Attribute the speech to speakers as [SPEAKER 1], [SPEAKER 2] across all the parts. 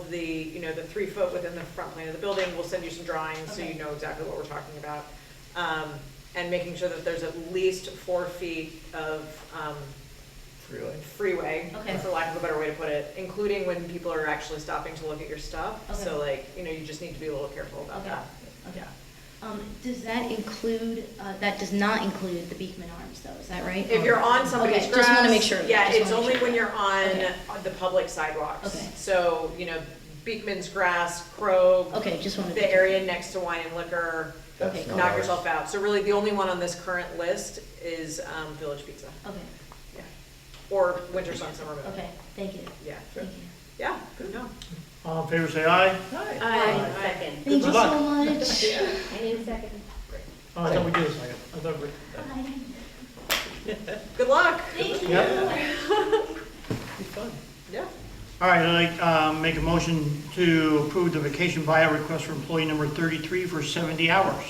[SPEAKER 1] of the, you know, the three foot within the front plane of the building, we'll send you some drawings so you
[SPEAKER 2] Okay.
[SPEAKER 1] know exactly what we're talking about. Um, and making sure that there's at least four feet of, um,
[SPEAKER 3] Really?
[SPEAKER 1] freeway,
[SPEAKER 2] Okay.
[SPEAKER 1] for lack of a better way to put it, including when people are actually stopping to look at your stuff. So like, you know, you just need to be a little careful about
[SPEAKER 2] Okay.
[SPEAKER 1] that.
[SPEAKER 2] Okay. Um, does that include, uh, that does not include the Beekman Arms though, is that right?
[SPEAKER 1] If you're on somebody's
[SPEAKER 2] Okay,
[SPEAKER 1] grass.
[SPEAKER 2] just wanna make sure.
[SPEAKER 1] Yeah,
[SPEAKER 2] Just
[SPEAKER 1] it's
[SPEAKER 2] wanna make
[SPEAKER 1] only
[SPEAKER 2] sure.
[SPEAKER 1] when you're on
[SPEAKER 2] Okay.
[SPEAKER 1] the public sidewalks.
[SPEAKER 2] Okay.
[SPEAKER 1] So, you know, Beekman's Grass, Crow,
[SPEAKER 2] Oh, Okay, just wanted to.
[SPEAKER 1] the area next to Wine and Liquor,
[SPEAKER 3] That's
[SPEAKER 2] Okay,
[SPEAKER 3] not
[SPEAKER 1] knock
[SPEAKER 3] ours.
[SPEAKER 1] yourself out. So really, the only one on this current list is um, Village Pizza,
[SPEAKER 2] Okay,
[SPEAKER 1] yeah. Or Winter Sun Summer Moon.
[SPEAKER 2] okay, thank you,
[SPEAKER 1] Yeah,
[SPEAKER 2] thank you.
[SPEAKER 1] yeah, no.
[SPEAKER 4] All in favor, say aye.
[SPEAKER 3] Hi.
[SPEAKER 1] Aye.
[SPEAKER 5] Second.
[SPEAKER 2] Thank you
[SPEAKER 4] Good
[SPEAKER 2] so
[SPEAKER 4] luck.
[SPEAKER 5] I
[SPEAKER 2] much.
[SPEAKER 5] need a second.
[SPEAKER 4] Oh, I thought we did a second. I thought we,
[SPEAKER 2] Bye.
[SPEAKER 1] Good luck.
[SPEAKER 2] Thank you.
[SPEAKER 4] Yep. Be fun.
[SPEAKER 1] Yeah.
[SPEAKER 4] All right, I'd like, um, make a motion to approve the vacation buyout request for employee number thirty-three for seventy hours.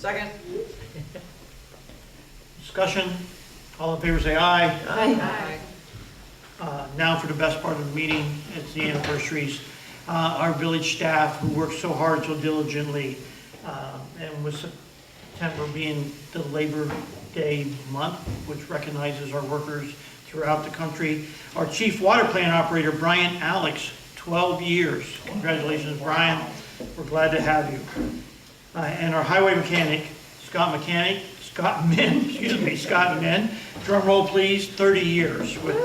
[SPEAKER 1] Second.
[SPEAKER 4] Discussion, all in favor, say aye.
[SPEAKER 1] Aye.
[SPEAKER 4] Uh, Now for the best part of the meeting, it's the anniversaries. Uh, Our village staff who worked so hard, so diligently, uh, and with September being the Labor Day month, which recognizes our workers throughout the country. Our chief water plant operator, Brian Alex, 12 years. Congratulations, Brian. We're glad to have you. Uh, And our highway mechanic, Scott Mechanic, Scott Min, excuse me, Scott Min, drum roll please, 30 years with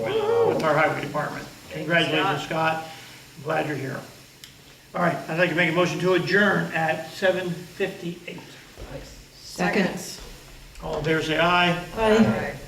[SPEAKER 4] with our highway department. Congratulations, Scott. I'm Glad you're here. All right, I'd like to make a motion to adjourn at 7:58.
[SPEAKER 1] Seconds.
[SPEAKER 4] All in favor, say aye.
[SPEAKER 1] Aye.